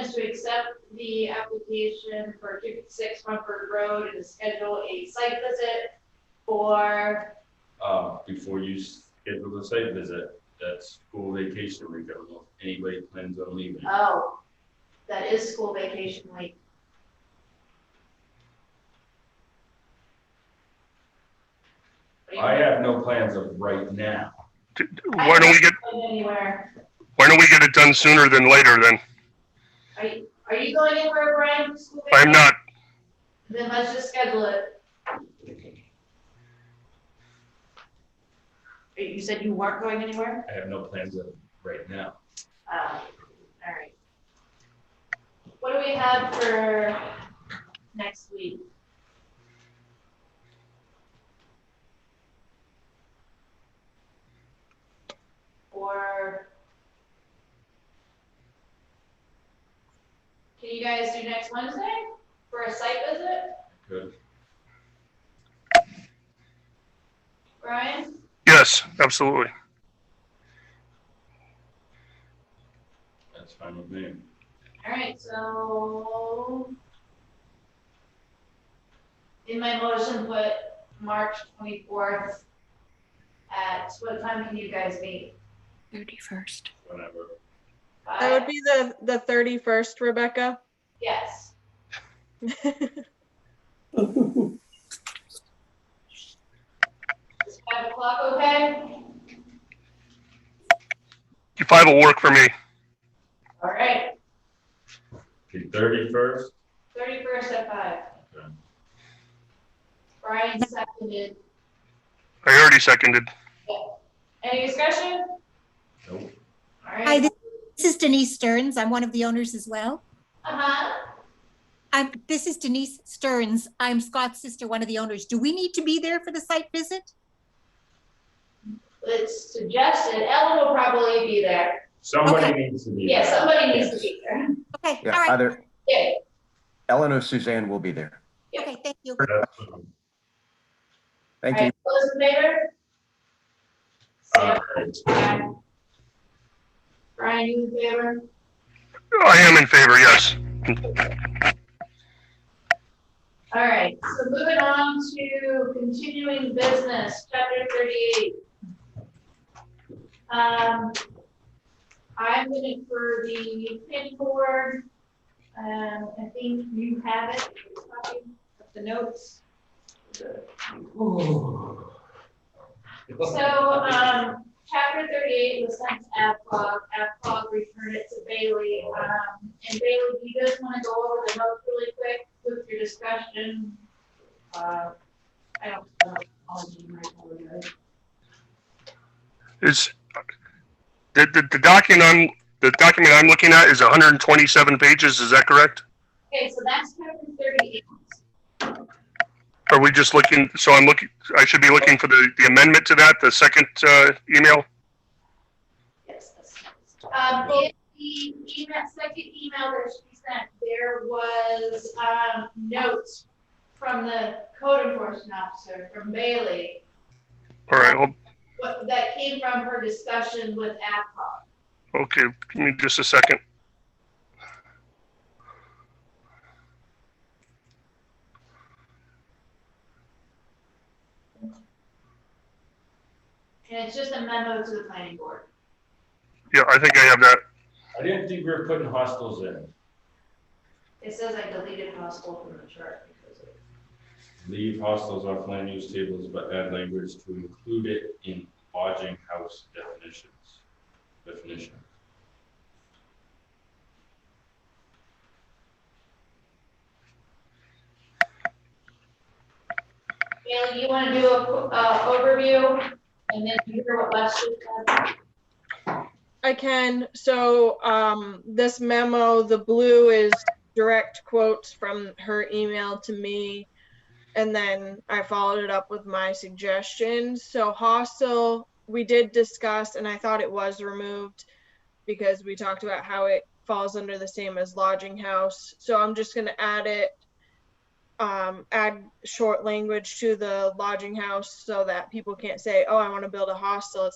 accept the application for two fifty-six Rumford Road and schedule a site visit for, Uh, before you schedule the site visit, that's school vacation week, I don't know if anybody plans on leaving. oh, that is school vacation week. What do you I have no plans of right now. D- d- I Why don't we get, going anywhere. why don't we get it done sooner than later then? Are you, are you going anywhere, Brian, for school? vacation? I'm not, Then let's just schedule it. You said you weren't going anywhere? I have no plans of right now. Uh, all right. What do we have for next week? Or can you guys do next Wednesday for a site visit, Good. Brian? yes, absolutely. That's fine with me. All right, so in my motion, put March twenty-fourth at, what time can you guys meet? Thirty-first. Whenever. That would Five? be the, the 31st, Rebecca. Yes, is five o'clock okay? Five will work for me. All right, Okay, thirty-first, thirty-first at five. Okay. Brian seconded. I already seconded. Any discussion? nope, All Hi, right. this is Denise Stearns. I'm one of the owners as well. Uh-huh. I'm, this is Denise Stearns. I'm Scott's sister, one of the owners. Do we need to be there for the site visit? It's suggested. Ellen will probably be there. somebody needs to be. Yeah, there. somebody needs to be there. Okay, all Yeah, right. either Yeah, Ellen or Suzanne will be there. Okay, thank you. That's fine. Thank All you. right, Those in favor? Sarah, Alright. aye. Brian, you in favor? I am in favor, yes. All right, so moving on to continuing business, chapter thirty-eight. Um, I'm gonna for the pin board, um, I think you have it, copy of the notes. uh, So, um, chapter thirty-eight was sent to AvCog, AvCog returned it to Bailey, um, and Bailey, do you guys wanna go over the notes really quick with your discussion? Uh, I don't, know. I'll do my apologies. It's, the, the, the document I'm, the document I'm looking at is hundred and twenty-seven pages, is that correct? Okay, so that's chapter thirty-eight, Are we just looking, so I'm looking, I should be looking for the, the amendment to that, the second, uh, email? yes, that's. Um, in the email, second email that she sent, there was, um, notes from the code enforcement officer, from Bailey, All right, well, what, that came from her discussion with AvCog. okay, give me just a second. And it's just a memo to the planning board. Yeah, I think I have that. I didn't think we were putting hostels in. It says I deleted household from the chart because of. Leave hostels off land use tables, but add language to include it in lodging house definitions. Definition. Bailey, you want to do a, qu- uh, overview and then you hear what Leslie said? I can. So um, this memo, the blue is direct quotes from her email to me. And then I followed it up with my suggestions. So hostel, we did discuss, and I thought it was removed because we talked about how it falls under the same as lodging house. So I'm just going to add it, um, add short language to the lodging house so that people can't say, oh, I want to build a hostel. It's